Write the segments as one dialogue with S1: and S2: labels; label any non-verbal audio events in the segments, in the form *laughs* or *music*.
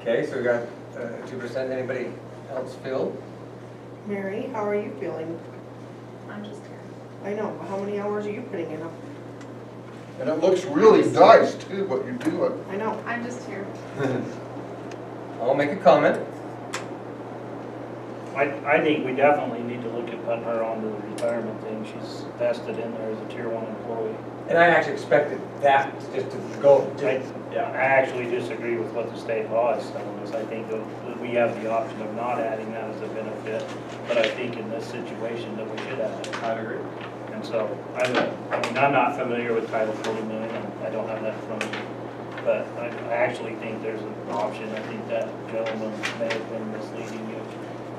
S1: Okay, so we got uh, two percent, anybody else
S2: *laughs*
S1: feel?
S3: Mary, how are you feeling?
S4: I'm just here.
S3: I know, but how many hours are you putting in?
S5: And it looks really nice too, what you're doing.
S3: I know.
S4: I'm just here.
S1: I'll make a comment.
S2: I, I think we definitely need to look at putting her onto the retirement thing. She's vested in there as a tier one employee.
S1: And I actually expected that just to go,
S2: I, yeah, I actually disagree with what the state law is telling us. I think that we have the option of not adding that as a benefit, but I think in this situation that we should add it.
S1: I'd agree.
S2: And so, I don't, I mean, I'm not familiar with Title 40 million, and I don't have that from me, but I I actually think there's an option. I think that gentleman may have been misleading you.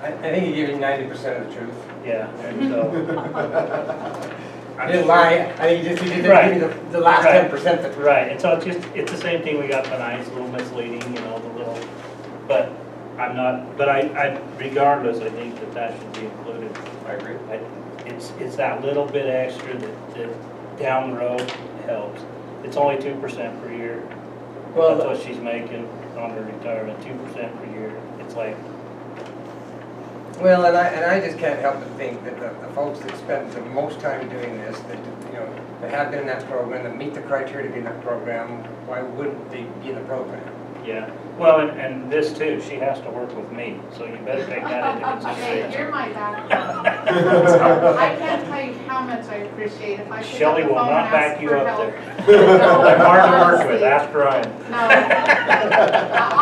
S1: I, I think he gave you ninety percent of the truth.
S2: Yeah, and so.
S1: *laughs* I didn't lie, I think he just, he didn't give you the, the last
S2: Right.
S1: ten percent that.
S2: Right, and so it's just, it's the same thing we got tonight, it's a little misleading, you know, the little, but I'm not, but I, I, regardless, I think that that should be included.
S1: I agree.
S2: I- It's, it's that little bit extra that, that down the road helps. It's only two percent per year,
S1: Well,
S2: that's what she's making on her retirement, two percent per year. It's like,
S1: Well, and I, and I just can't help but think that the, the folks that spend the most time doing this, that, you know, that have been in that program, that meet the criteria to be in that program, why wouldn't they be in the program?
S2: yeah, well, and, and this too, she has to work with me, so you better take that into
S4: *laughs* Okay,
S2: consideration.
S4: you're my backbone. I can't tell you how much I appreciate if I pick up
S2: Shelley
S4: the
S2: will
S4: phone and
S2: not back
S4: ask
S2: you
S4: for
S2: up
S4: help.
S2: there.
S4: *laughs*
S2: *laughs* I'm hard to work with,
S4: Honestly.
S2: ask Ryan.
S4: No.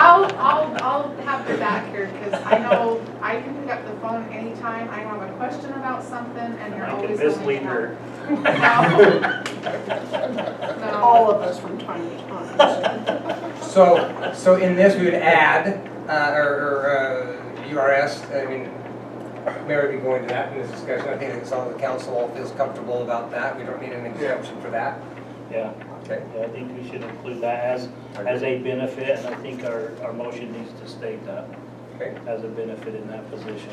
S4: I'll, I'll, I'll have the back here because I know I can pick up the phone anytime I have a question about something and you're
S2: I can
S4: always willing
S2: mislead
S4: to
S2: her.
S4: help.
S2: *laughs*
S4: No. No.
S3: All of us from time to time.
S1: So, so in this, we would add, uh, or, or, uh, URS, I mean, Mary would be going to that in this discussion, I think it's all the council all feels comfortable about that, we don't need an exemption for that,
S2: Yeah,
S1: okay?
S2: yeah, I think we should include that as, as a benefit, and I think our, our motion needs to state that
S1: Okay,
S2: as a benefit in that position.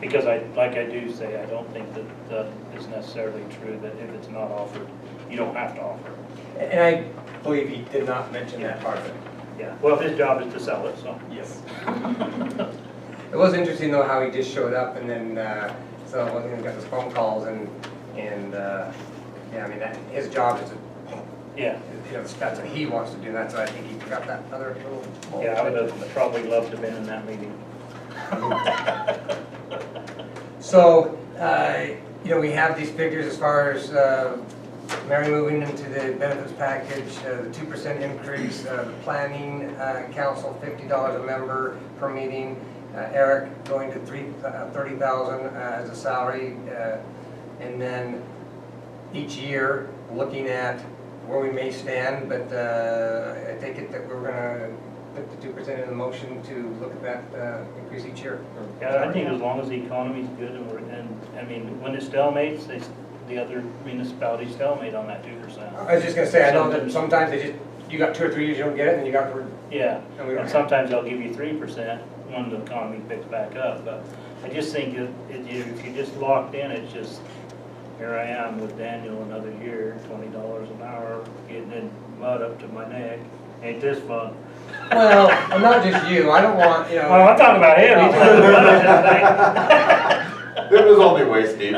S2: Because I, like I do say, I don't think that that is necessarily true, that if it's not offered, you don't have to offer. it.
S1: and I believe he did not mention that part of it.
S2: Yeah, well, his job is to sell it, so.
S1: Yes. It was interesting though how he just showed up and then, uh, so I wasn't gonna get those phone calls and, and, uh, yeah, I mean, that, his job is to,
S2: Yeah,
S1: you know, that's what he wants to do, that's why I think he forgot that other little.
S2: yeah, I would have probably loved to have been in that meeting.
S1: So, uh, you know, we have these figures as far as uh, Mary moving into the benefits package, uh, the two percent increase, uh, the planning uh, council, fifty dollars a member per meeting, uh, Eric going to three, uh, thirty thousand as a salary, uh, and then each year, looking at where we may stand, but uh, I take it that we're gonna put the two percent in the motion to look at that uh, increase each year.
S2: Yeah, I think as long as the economy's good and we're, and, I mean, when it stalemates, they, s- the other municipalities stalemate on that two percent.
S1: I was just gonna say, I know that sometimes they just, you got two or three years, you don't get it, and then you got, for-
S2: Yeah,
S1: And we don't-
S2: and sometimes they'll give you three percent when the economy picks back up, but I just think if, if you- if you're just locked in, it's just, here I am with Daniel another year, twenty dollars an hour, getting in mud up to my neck, ain't this fun?
S1: *laughs* well, I'm not just you, I don't want, you
S2: Well,
S1: know,
S2: I'm talking about him, he's in the mud up to his neck.
S1: *laughs*
S6: It was only waist deep.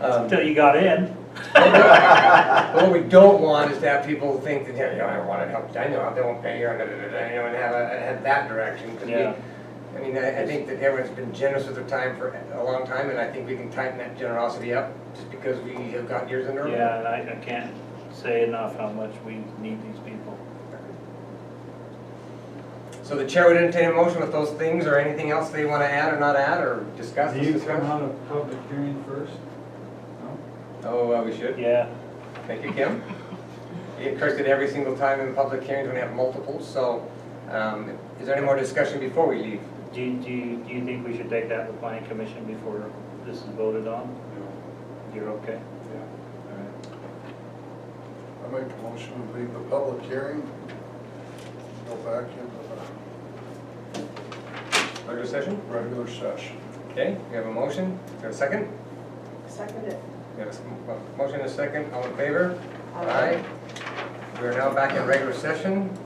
S1: um,
S2: until you got in.
S1: but what we don't want is to have people think that, you know, I wanna help, I know, they won't pay you, and da, da, da, da, you know, and have, a- have that direction, 'cause we-
S2: Yeah.
S1: I mean, I, I think that everyone's been generous with their time for a long time, and I think we can tighten that generosity up, just because we have got years in a row.
S2: Yeah, and I, I can't say enough how much we need these people.
S1: So the chair would entertain a motion with those things, or anything else they wanna add or not add, or discuss,
S7: Do you come
S1: discuss?
S7: out of public hearing first? No?
S1: Oh, uh, we should?
S2: Yeah,
S1: Thank you, Kim. It occurs that every single time in public hearings when we have multiples, so um, is there any more discussion before we leave?
S2: do, you- do, you- do you think we should take that to the planning commission before this is voted on? You're okay?
S5: I make a motion to leave the public hearing, go back into
S1: Regular session?
S5: the regular session.
S1: Okay, we have a motion, we have a second,
S3: Second it.
S1: we have a s- a motion and a second, all in favor? Aye. We are now back in regular session.